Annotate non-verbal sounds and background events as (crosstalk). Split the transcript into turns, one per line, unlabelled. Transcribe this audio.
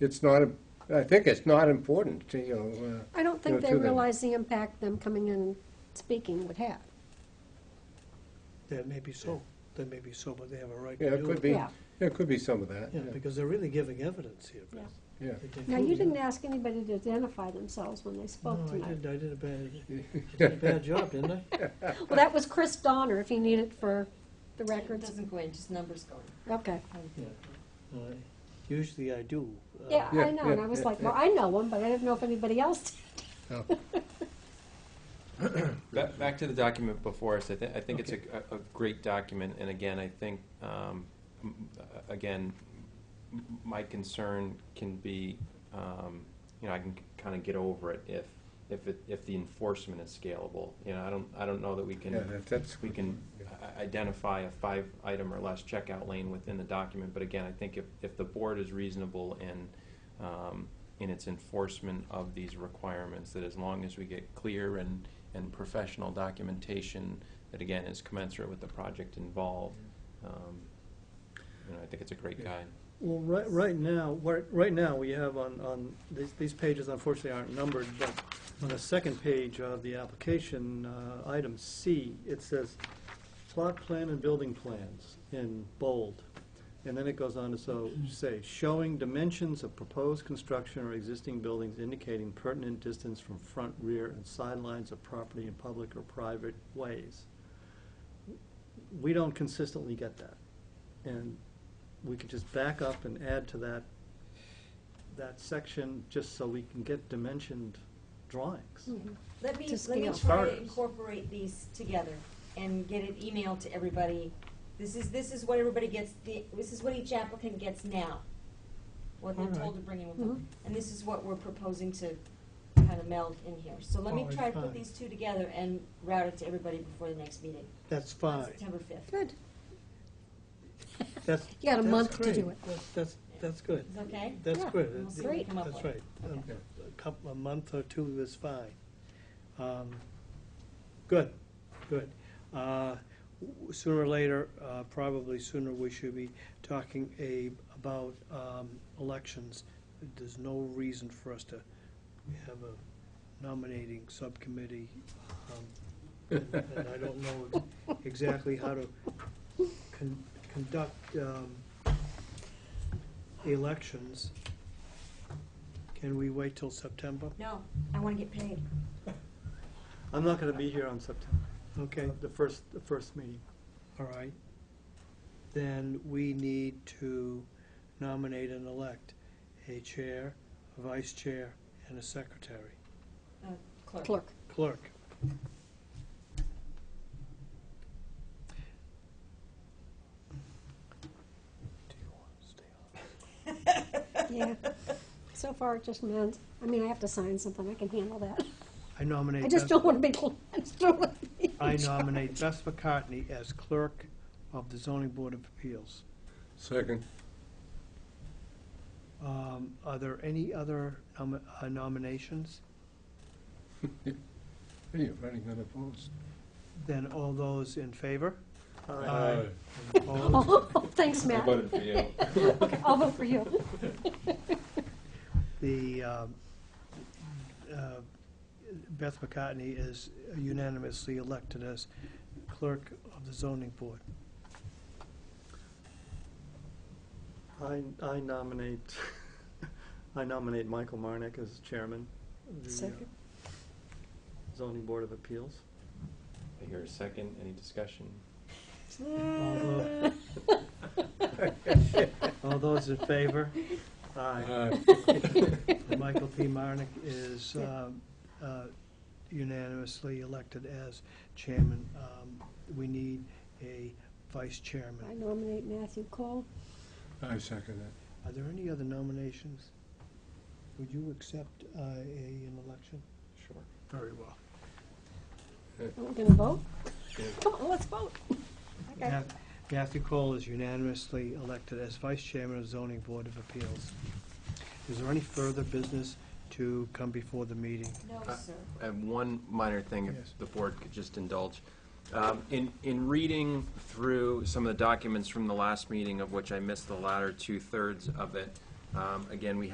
it's not, I think it's not important, to, you know, uh,
I don't
Yeah,
think they
to them.
realize the impact them coming in and speaking would have.
That may be so, that may be so, but they have a right to
yeah,
do it.
it could be,
Yeah.
yeah, it could be some of that,
Yeah,
yeah,
because they're really giving evidence here, Beth.
yeah.
They- they
Now, you
fully-
didn't ask anybody to identify themselves when they spoke
No, I
tonight.
did, I did a
(laughs)
bad, I did a bad job, didn't I?
Well, that was Chris Donner, if you need it for the
It
records.
doesn't go in, just numbers go in.
Okay.
Yeah. No, I- Usually I do. uh,
Yeah,
Yeah,
I know, and
yeah,
I was
yeah,
like,
yeah.
well, I know him, but I didn't know if anybody else did.
So-
Back, back to the document before us, I think, I think it's a, a a great document, and again, I think, um, m- uh, again, m- my concern can be, um, you know, I can kind of get over it if, if it, if the enforcement is scalable. You know, I don't, I don't know that we
Yeah,
can,
that- that's.
we can i- identify a five-item or less checkout lane within the document, but again, I think if, if the board is reasonable in, um, in its enforcement of these requirements, that as long as we get clear and, and professional documentation that again is commensurate with the project involved, um, you know, I think it's a great guide.
Well, right, right now, right, right now, we have on, on, these, these pages unfortunately aren't numbered, but on the second page of the application, uh, item C, it says plot plan and building plans in bold. And then it goes on to so, say, showing dimensions of proposed construction or existing buildings indicating pertinent distance from front, rear, and sidelines of property in public or private ways. We don't consistently get that. And we could just back up and add to that, that section, just so we can get dimensioned drawings.
Hmm.
Let me,
To
let
scale.
me try to
Starters.
incorporate these together and get an email to everybody. This is, this is what everybody gets, the- this is what each applicant gets now, what they're
All right.
told to bring in with
Mhm.
them. And this is what we're proposing to kind of meld in here. So let me
All right,
try to put
Oh, fine.
these two together and route it to everybody before the next meeting,
That's
on
fine.
September fifth.
Good.
That's.
You got a
that's
month to
great.
do it.
That's, that's, that's good.
Is that okay?
That's
Yeah,
good.
We'll
It-
see
great.
what we come up with.
That's right. Um,
Okay.
A couple, a month or two is fine. Um, Good, good. Uh, w- Sooner or later, uh, probably sooner, we should be talking a, about um, elections. There's no reason for us to have a nominating subcommittee. um, And and I don't know exactly how to con- conduct um, elections. Can we wait till September?
No, I want to get paid.
I'm not gonna be here on September,
Okay,
the first, the first meeting.
all right. Then we need to nominate and elect a chair, a vice chair, and a secretary,
Uh, Clerk.
Clerk.
clerk. Do you want to stay on?
Yeah. (laughs) So far, it just meant, I mean, I have to sign something, I can handle that.
I nominate.
I just
Beth-
don't want to be, I just don't want to be. in
uh, I
charge. (laughs)
nominate Beth McCartney as clerk of the zoning board of appeals.
Second,
Um, Are there any other nom- uh, nominations?
hey, you're running out of votes.
Then all those in favor?
Uh,
Aye.
Opposed?
Oh, Thanks, Matt.
for (laughs) you.
Okay, I'll vote for you.
The, um, uh, Beth McCartney is unanimously elected as clerk of the zoning board.
I, I nominate, (laughs) I nominate Michael Marnick as chairman of the uh,
Second.
zoning board of appeals.
I hear a second, any discussion?
All All those in favor?
Aye.
Michael P. Marnick is um, uh, unanimously elected as chairman. Um, We need a vice
I
chairman.
nominate Matthew Cole.
I second that.
Are there any other nominations? Would you accept uh, a- an election?
Sure.
Very well.
Are we going to vote?
Yeah.
Come on, let's vote. Okay.
Math- Matthew Cole is unanimously elected as vice chairman of zoning board of appeals. Is there any further business to come before the meeting?
No,
Uh,
sir.
I have one minor thing,
Yes.
if the board could just indulge. Um, In, in reading through some of the documents from the last meeting, of which I missed the latter two-thirds of it, um, again, we